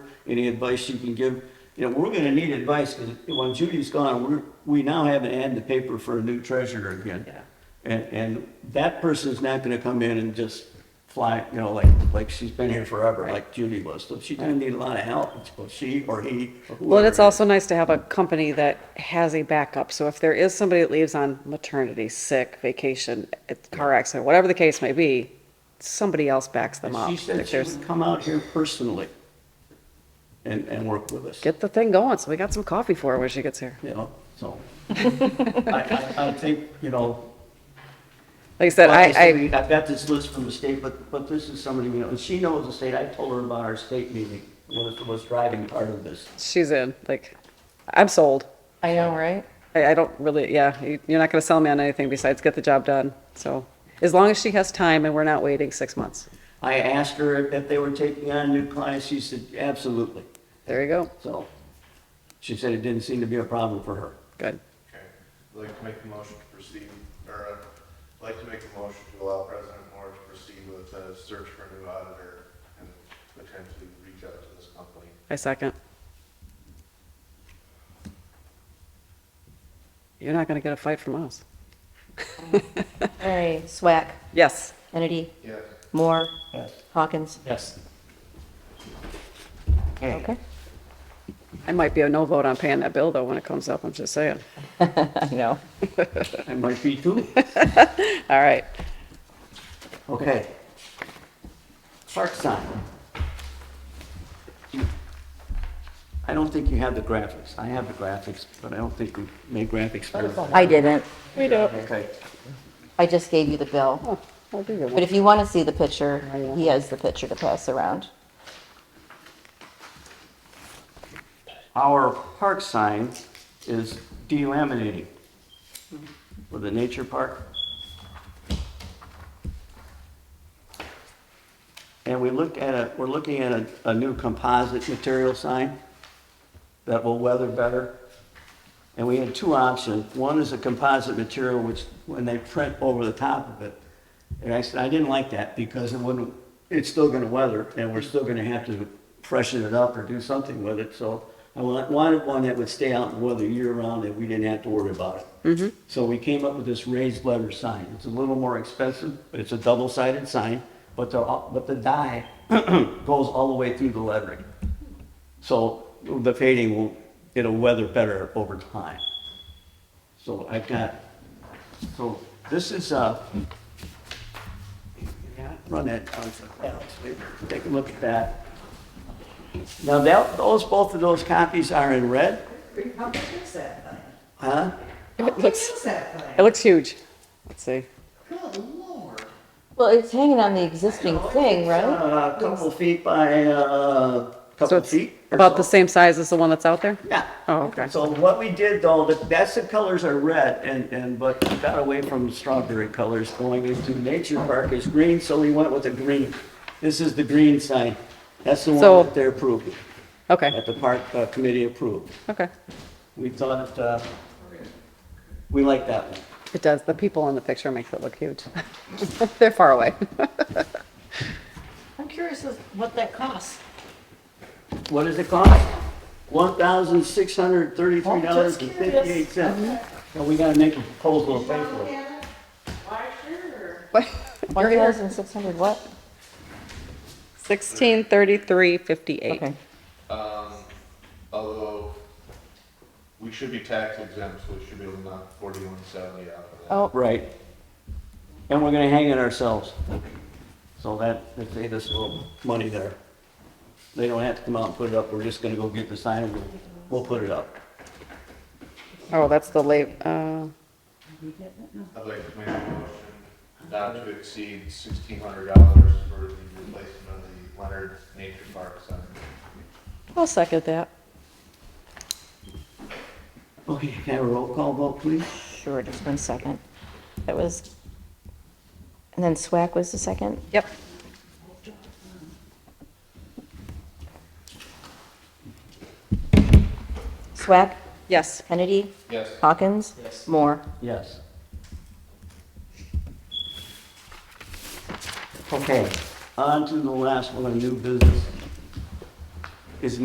any advice you can give. You know, we're gonna need advice, because when Judy's gone, we're, we now have an ad in the paper for a new treasurer again. Yeah. And, and that person's not gonna come in and just fly, you know, like, like she's been here forever, like Judy was. So she's gonna need a lot of help, so she or he or whoever. Well, it's also nice to have a company that has a backup. So if there is somebody that leaves on maternity, sick, vacation, a car accident, whatever the case may be, somebody else backs them up. She said Like, she there's- would come out here personally and, and work with us, Get the thing going, so we got some coffee for her when she gets here. you know, so. I, I, I think, you know, Like I said, I, Like I, said, I've got this list from the state, but, but this is somebody, you know, and she knows the state, I told her about our state meeting, was, was driving part of this. she's in, like, I'm sold. I know, right? I, I don't really, yeah, you- you're not gonna sell me on anything besides get the job done. So as long as she has time and we're not waiting six months. I asked her if- if they were taking on new clients, she said, absolutely, There you go. so. She said it didn't seem to be a problem for her. Good. Okay, I'd like to make a motion to proceed, or uh, I'd like to make a motion to allow President Moore to proceed with a search for a new auditor and potentially reach out to this company. I second. You're not gonna get a fight from us. All right, Swack, Yes. Kennedy, Yes. Moore, Yes. Hawkins. Yes. Okay. I might be a no vote on paying that bill though when it comes up, I'm just saying. I know. That might be too, All right. okay. Park sign. I don't think you have the graphics, I have the graphics, but I don't think we made graphics for. I didn't. We do. Okay. I just gave you the bill. I'll do your But one. if you want to see the picture, he has the picture to pass around. Our park sign is delaminating for the nature park. And we looked at a, we're looking at a, a new composite material sign that will weather better. And we had two options. One is a composite material which, when they print over the top of it. And I said, I didn't like that because it wouldn't, it's still gonna weather and we're still gonna have to freshen it up or do something with it. So I wa- wanted one that would stay out and weather year round and we didn't have to worry about it. So we came up with this raised letter sign. It's a little more expensive, but it's a double-sided sign, but the, but the die goes all the way through the lettering. So the fading will, it'll weather better over time. So I've got, so this is, uh, run that, on for Alex. take a look at that. Now that, those, both of those copies are in red, How big is that thing? huh? How big is that thing? It looks huge. Let's see. Good lord. Well, it's hanging on the existing thing, right? Uh, A couple feet by, uh, So couple it's feet. or about the so. same size as the one that's out there? Yeah. Oh, okay. So what we did though, that- that's the colors are red and, and, but we got away from strawberry colors going into nature park is green, so we went with the green. This is the green sign. That's the So- one that they're approving, Okay, that the park uh, committee approved. okay. We thought, uh, we like that one. It does. The people in the picture makes it look huge. They're far away. I'm curious as what that costs. What does it cost? One thousand six hundred thirty-three dollars and fifty-eight cents. Mm-hmm. So we gotta make a proposal of pay for it. One thousand six hundred what? Sixteen thirty-three fifty-eight. Okay. Um, although, we should be tax exempt, so we should be able to knock forty-one seventy out of that. Oh, Right. And we're gonna hang it ourselves. So that, that saved us a little money there. They don't have to come out and put it up, we're just gonna go get the sign and we'll, we'll put it up. Oh, that's the late, uh, I'd like to make a motion not to exceed sixteen hundred dollars for the replacement of the Leonard Nature Park sign. I'll second that. Okay, can I have a roll call vote, please? sure, just one second. That was, and then Swack was the second? Yep. Swack, Yes. Kennedy, Yes. Hawkins, Moore. Yes. Okay, on to the last one, new business.